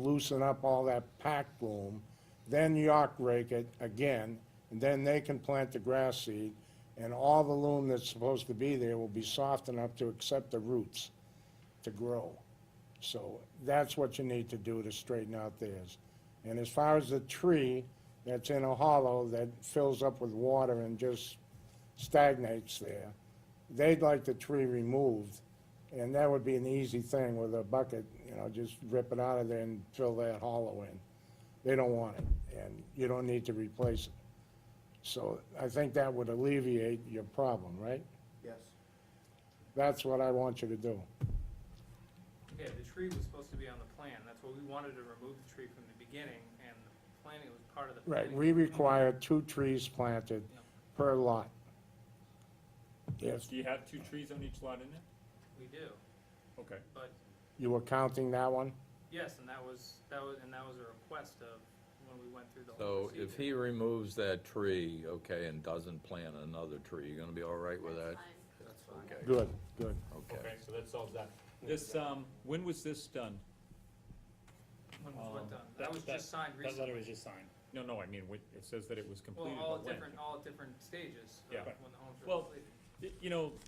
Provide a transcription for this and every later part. loosen up all that packed loam, then york rake it again, and then they can plant the grass seed, and all the loam that's supposed to be there will be soft enough to accept the roots to grow. So that's what you need to do to straighten out theirs. And as far as the tree that's in a hollow that fills up with water and just stagnates there, they'd like the tree removed, and that would be an easy thing with a bucket, you know, just rip it out of there and fill that hollow in. They don't want it, and you don't need to replace it. So I think that would alleviate your problem, right? Yes. That's what I want you to do. Yeah, the tree was supposed to be on the plan, that's what we wanted to remove the tree from the beginning, and the planning was part of the Right, planning. we require two trees planted Yeah. per lot. Yes, Do you have two trees on each lot in there? We do, Okay. but, you were counting that one? yes, and that was, that was, and that was a request of, when we went through the whole So if he procedure. removes that tree, okay, and doesn't plant another tree, you gonna be all right with that? That's fine. Okay, Good, good. Okay. Okay, so that solves that. This, um, when was this done? When was what Um, done, that- that was just signed That letter recently, was just signed. No, no, I mean, when- it says that it was well, completed, all but at when? different, all at different stages, Yeah. of when the homes were Well, completed. Y- You know, you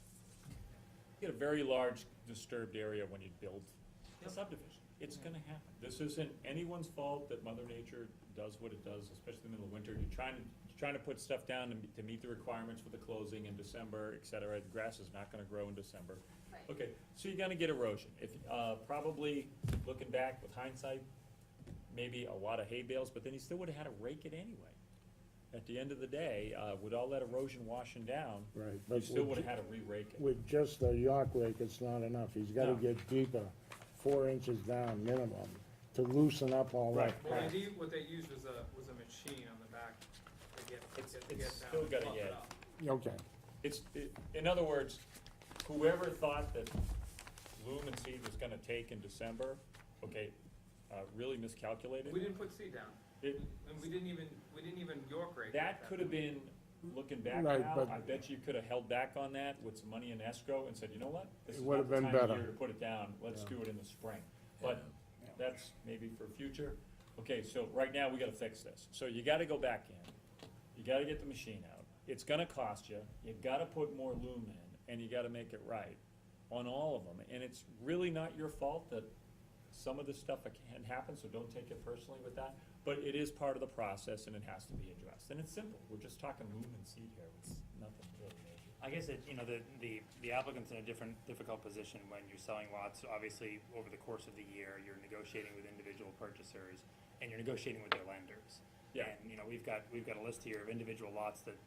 get a very large disturbed area when you build a Yep. subdivision. It's gonna happen. This isn't anyone's fault that Mother Nature does what it does, especially in the middle of winter. You're trying, you're trying to put stuff down to meet- to meet the requirements for the closing in December, et cetera. The grass is not gonna grow in December. Right. Okay, so you're gonna get erosion. If, uh, probably, looking back with hindsight, maybe a lot of hay bales, but then he still would've had to rake it anyway. At the end of the day, uh, with all that erosion washing down, Right, you but still with- would've had to re-rake it. with just the York rake, it's not enough. He's gotta No. get deeper, four inches down minimum, to loosen up all that Right. Well, crap. they, what they used was a, was a machine on the back to get, to It's- get, to it's get down. still and gotta fluff it get- up. Okay, It's, it- in other words, whoever thought that loom and seed was gonna take in December, okay, uh, really miscalculated. We didn't put seed down, It- and we didn't even, we didn't even York rake. it at That could have point. been, looking back Right, now, but- I bet you could have held back on that with some money in escrow and said, you know what? This It is would not have the been time of better. year To put it down, let's do it in the spring. But that's maybe for future. Okay, so right now, we gotta fix this. So you gotta go back in, you gotta get the machine out. It's gonna cost you, you gotta put more lumen in, and you gotta make it right on all of them. And it's really not your fault that some of this stuff can happen, so don't take it personally with that. But it is part of the process and it has to be addressed. And it's simple, we're just talking lumen and seed here, it's nothing really major. I guess that, you know, the, the the applicant's in a different, difficult position when you're selling lots. Obviously, over the course of the year, you're negotiating with individual purchasers and you're negotiating with their lenders. Yeah. And, you know, we've got, we've got a list here of individual lots that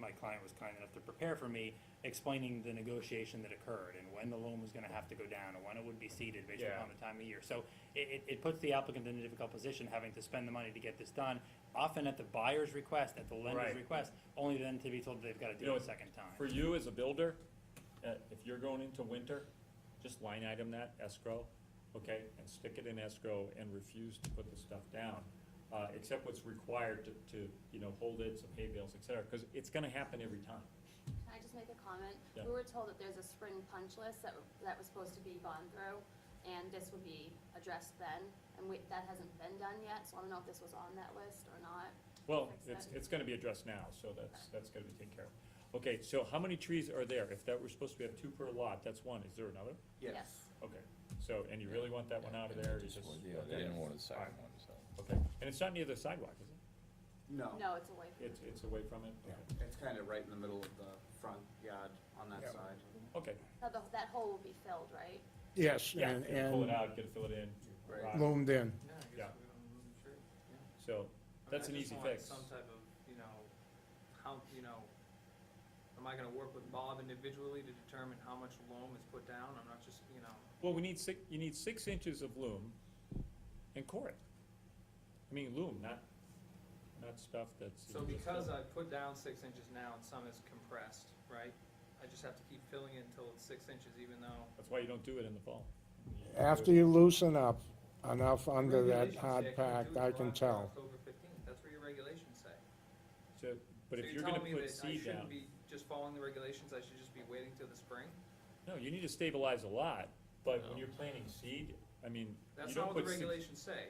my client was kind enough to prepare for me, explaining the negotiation that occurred and when the loan was gonna have to go down and when it would be seeded based Yeah. upon the time of year. So it, it, it puts the applicant in a difficult position, having to spend the money to get this done, often at the buyer's request, at the lender's Right. request, only then to be told they've gotta You do know, it a second time. For you as a builder, uh, if you're going into winter, just line item that escrow, okay, and stick it in escrow and refuse to put the stuff down. Uh, except what's required to, to, you know, hold it, some hay bales, et cetera, cause it's gonna happen every time. Can I just make a comment? Yeah. We were told that there's a spring punch list that, that was supposed to be gone through, and this would be addressed then, and we, that hasn't been done yet, so I don't know if this was on that list or not. Well, Fix it's, that. it's gonna be addressed now, so that's, that's gonna be taken care of. Okay, so how many trees are there? If that, we're supposed to have two per lot, that's one, is there another? Okay, so, and you really want that one out of there, you just. Yeah, they didn't want a second one, so. Okay, and it's not near the sidewalk, is it? No, No, it's away from. It's, it's away from it? Okay. it's kind of right in the middle of the front yard on that Yeah. side. Okay, Now, the- that hole will be filled, right? yes, yeah, and, gotta pull it and out, gotta fill it in, Right. rock. loomed in. Yeah, I guess Yeah. we're gonna remove the tree. so, I mean, that's I an just easy want fix. Some type of, you know, how, you know, am I gonna work with Bob individually to determine how much loam is put down? I'm not just, you know, Well, we need six, you need six inches of loom and core it. I mean, loom, not, not stuff that's. so because I put down six inches now and some is compressed, right? I just have to keep filling it until it's six inches even though. That's why you don't do it in the fall. After you loosen up enough under that Regulations say hard can't pack, do it I till can after tell. October fifteenth, that's what your regulations say. So, but So if you're you're gonna telling me put that I seed shouldn't down, be just following the regulations, I should just be waiting till the spring? no, you need to stabilize a lot, but when you're planting seed, I mean, you That's don't not what put the six. regulations say.